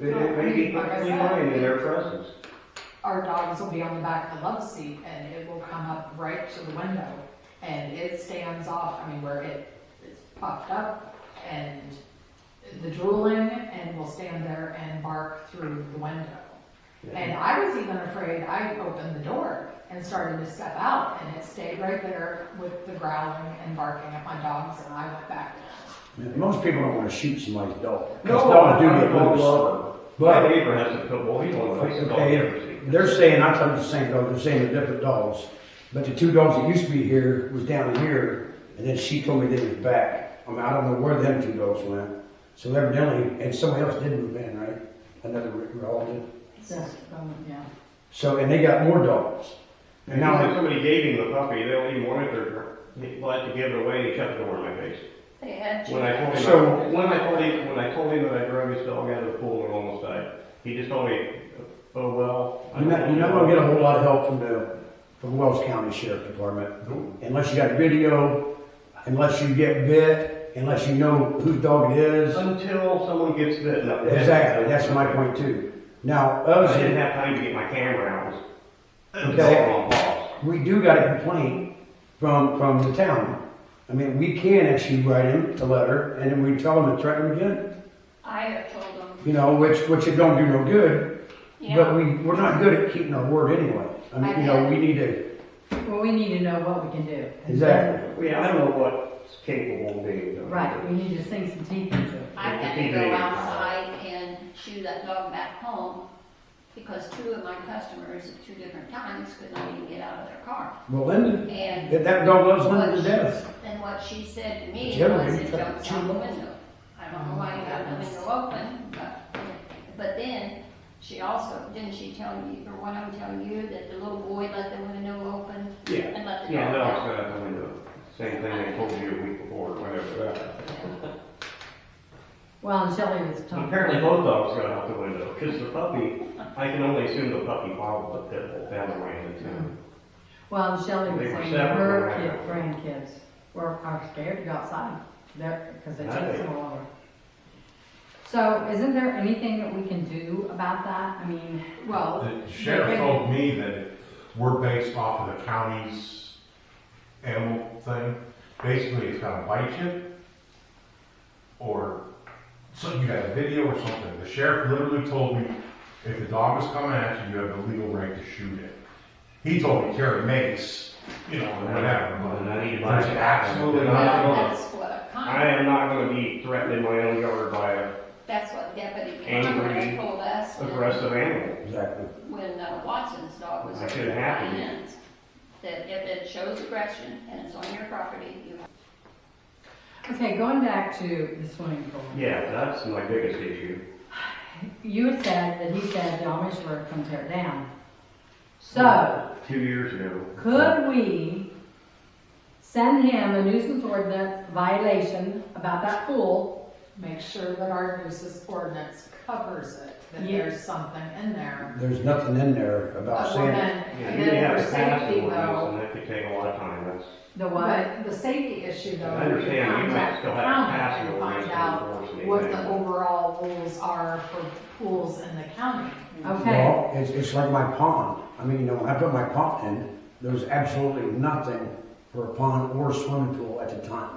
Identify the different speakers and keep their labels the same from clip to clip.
Speaker 1: be
Speaker 2: like I
Speaker 1: perfectly
Speaker 2: said,
Speaker 1: fine in their presence.
Speaker 2: Our dogs will be on the back of the love seat and it will come up right to the window and it stands off, I mean, where it is puffed up and the drooling and will stand there and bark through the window. And I was even afraid, I opened the door and started to step out and it stayed right there with the growling and barking at my dogs and I went back.
Speaker 3: Most people don't want to shoot somebody's dog.
Speaker 1: No,
Speaker 3: Because dogs do
Speaker 1: I
Speaker 3: get
Speaker 1: don't
Speaker 3: loose.
Speaker 1: love My
Speaker 3: But
Speaker 1: neighbor has a pit bull, he won't let his dog ever
Speaker 3: okay,
Speaker 1: see.
Speaker 3: they're saying, I'm talking the same dog, they're saying they're different dogs. But the two dogs that used to be here was down here, and then she told me they was back. I mean, I don't know where them two dogs went. So evidently, and somebody else did move in, right? Another re- relative.
Speaker 4: That's, um, yeah.
Speaker 3: So, and they got more dogs. And
Speaker 1: And now when
Speaker 3: now,
Speaker 1: somebody gave him the puppy, they'll even want it, they're, they like to give it away, he shut the door in my face.
Speaker 4: They had
Speaker 1: When I told him,
Speaker 3: So-
Speaker 1: when I told him, when I told him that I drug his dog out of the pool and almost died, he just told me, oh, well. I
Speaker 3: you're not,
Speaker 1: told
Speaker 3: you're not
Speaker 1: you."
Speaker 3: gonna get a whole lot of help from the, from Wells County Sheriff Department. Unless you got video, unless you get bit, unless you know whose dog it is.
Speaker 1: Until someone gets bitten up.
Speaker 3: Exactly, that's my point too. Now,
Speaker 1: I
Speaker 3: us,
Speaker 1: didn't have time to get my camera out. It was
Speaker 3: Okay.
Speaker 1: all on pause.
Speaker 3: we do got a complaint from, from the town. I mean, we can actually write him a letter and then we tell him to threaten him again,
Speaker 4: I have told them,
Speaker 3: you know, which, which it don't do no good. But
Speaker 4: yeah,
Speaker 3: we, we're not good at keeping our word anyway. I mean, you know, we need to,
Speaker 5: Well, we need to know what we can do.
Speaker 3: exactly.
Speaker 1: Yeah, I don't know what's capable of being done.
Speaker 5: Right, we need to sink some teeth into it.
Speaker 4: I had to go outside and shoo that dog back home because two of my customers at two different times could not even get out of their car.
Speaker 3: Well, Linda,
Speaker 4: And
Speaker 3: that that dog loves Linda to death.
Speaker 4: then what she said to
Speaker 3: But
Speaker 4: me
Speaker 3: you haven't
Speaker 4: was
Speaker 3: even
Speaker 4: it
Speaker 3: tried to
Speaker 4: jumps
Speaker 3: chew
Speaker 4: out the
Speaker 3: on it.
Speaker 4: window. I don't know why you got the window open, but, but then she also, didn't she tell you, or what I'm telling you, that the little boy let the window open
Speaker 1: Yeah,
Speaker 4: and let the
Speaker 1: yeah,
Speaker 4: dog
Speaker 1: no, it's
Speaker 4: out?
Speaker 1: gonna happen in the same thing I told you a week before, or whatever.
Speaker 5: Well, and Shelley was talking.
Speaker 1: Apparently both dogs got out the window, because the puppy, I can only assume the puppy followed the pit bull down the way into town.
Speaker 5: Well, and Shelley was
Speaker 1: They were
Speaker 5: saying
Speaker 1: separate,
Speaker 5: her
Speaker 1: right?
Speaker 5: kid, grandkids were, are scared to go outside. They're, because they
Speaker 1: I
Speaker 5: chase
Speaker 1: think-
Speaker 5: them all over. So isn't there anything that we can do about that? I mean,
Speaker 2: Well,
Speaker 6: The sheriff told me that we're based off of the county's animal thing. Basically, it's gonna bite you, or, so you got a video or something. The sheriff literally told me, if the dog is coming at you, you have the legal right to shoot it. He told me carry mace, you know, or whatever,
Speaker 1: And I need to
Speaker 6: but
Speaker 1: buy-
Speaker 6: there's absolutely
Speaker 1: Yeah.
Speaker 6: not.
Speaker 4: Well, that's what a con,
Speaker 1: I am not gonna be threatening my own yard by a
Speaker 4: that's what Deputy
Speaker 1: Angry,
Speaker 4: Conrad told us when-
Speaker 1: aggressive animal.
Speaker 3: Exactly.
Speaker 4: when uh, Watson's dog was
Speaker 1: That
Speaker 4: over
Speaker 1: could
Speaker 4: at
Speaker 1: happen.
Speaker 4: Diane's. That if it shows aggression and it's on your property, you have.
Speaker 5: okay, going back to the swimming pool.
Speaker 1: Yeah, that's my biggest issue.
Speaker 5: You had said that he said the Amish were gonna tear it down. So,
Speaker 1: Two years ago.
Speaker 5: could we send him a nuisance ordinance violation about that pool?
Speaker 2: make sure that our nuisance ordinance covers it, that
Speaker 5: Yeah.
Speaker 2: there's something in there.
Speaker 3: There's nothing in there about
Speaker 2: But
Speaker 3: saying.
Speaker 2: then,
Speaker 1: Yeah,
Speaker 2: and
Speaker 1: you didn't
Speaker 2: then
Speaker 1: have
Speaker 2: for
Speaker 1: a pass
Speaker 2: safety
Speaker 1: ordinance,
Speaker 2: though,
Speaker 1: and that could take a lot of time, that's.
Speaker 5: The what?
Speaker 2: but the safety issue though.
Speaker 1: I understand you might
Speaker 2: contact
Speaker 1: still
Speaker 2: the
Speaker 1: have
Speaker 2: county
Speaker 1: pass
Speaker 2: and
Speaker 1: ordinance
Speaker 2: Find
Speaker 1: to
Speaker 2: out
Speaker 1: enforce
Speaker 2: what the
Speaker 1: anything.
Speaker 2: overall rules are for pools in the county.
Speaker 5: Okay.
Speaker 3: Well, it's, it's like my pond. I mean, you know, when I put my pond in, there was absolutely nothing for a pond or swimming pool at the time.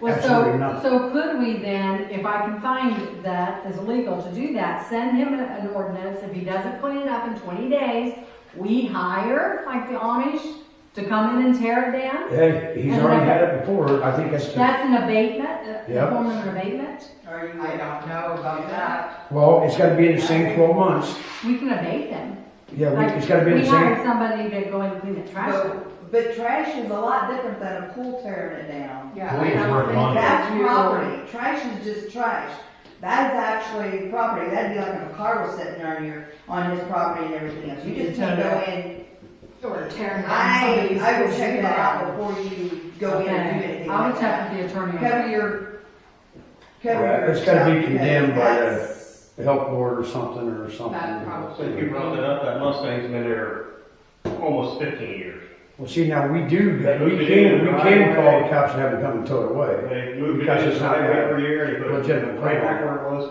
Speaker 5: Well,
Speaker 3: Absolutely
Speaker 5: so,
Speaker 3: not.
Speaker 5: so could we then, if I can find that is legal to do that, send him a- an ordinance, if he doesn't clean it up in twenty days, we hire, like the Amish, to come in and tear it down?
Speaker 3: Hey, he's
Speaker 5: And
Speaker 3: already
Speaker 5: then-
Speaker 3: had it before. I think that's, the-
Speaker 5: That's an abatement, uh, a-
Speaker 3: Yeah.
Speaker 5: a form of an abatement?
Speaker 2: I don't know about that.
Speaker 3: well, it's gotta be in the same twelve months.
Speaker 5: We can abate them.
Speaker 3: Yeah, we-
Speaker 5: Like,
Speaker 3: it's gotta be in
Speaker 5: We
Speaker 3: the same.
Speaker 5: hired somebody to go and clean the trash up.
Speaker 7: But, but trash is a lot different than a pool tearing it down.
Speaker 2: Yeah.
Speaker 6: Well,
Speaker 2: I
Speaker 6: it's
Speaker 2: don't
Speaker 6: worth
Speaker 2: think
Speaker 6: money.
Speaker 2: that
Speaker 7: That's
Speaker 2: you-
Speaker 7: property, trash is just trash. That is actually property, that'd be like if a car was sitting on your, on his property and everything else, you just can't go in.
Speaker 2: Or tearing down
Speaker 7: I,
Speaker 2: somebody's.
Speaker 7: I would check that out
Speaker 2: pool.
Speaker 7: before you go in and do anything
Speaker 5: I'll
Speaker 7: like
Speaker 5: check
Speaker 7: that.
Speaker 5: with the attorney. on that.
Speaker 7: Cover your, cover
Speaker 3: Yeah,
Speaker 7: your.
Speaker 3: it's gotta be
Speaker 7: stuff, because
Speaker 3: condemned by the-
Speaker 7: that's-
Speaker 3: The health board or something or something.
Speaker 2: That probably-
Speaker 1: Since you brought that up, that Mustang's been there almost fifteen years.
Speaker 3: Well, see, now we do,
Speaker 1: They
Speaker 3: we
Speaker 1: moved it in
Speaker 3: can, we
Speaker 1: the
Speaker 3: can
Speaker 1: right
Speaker 3: call
Speaker 1: way.
Speaker 3: the cops and have them come and tow it away.
Speaker 1: They moved it
Speaker 3: Because
Speaker 1: in
Speaker 3: it's not
Speaker 1: every year, they put it
Speaker 3: legitimate
Speaker 1: right back where it was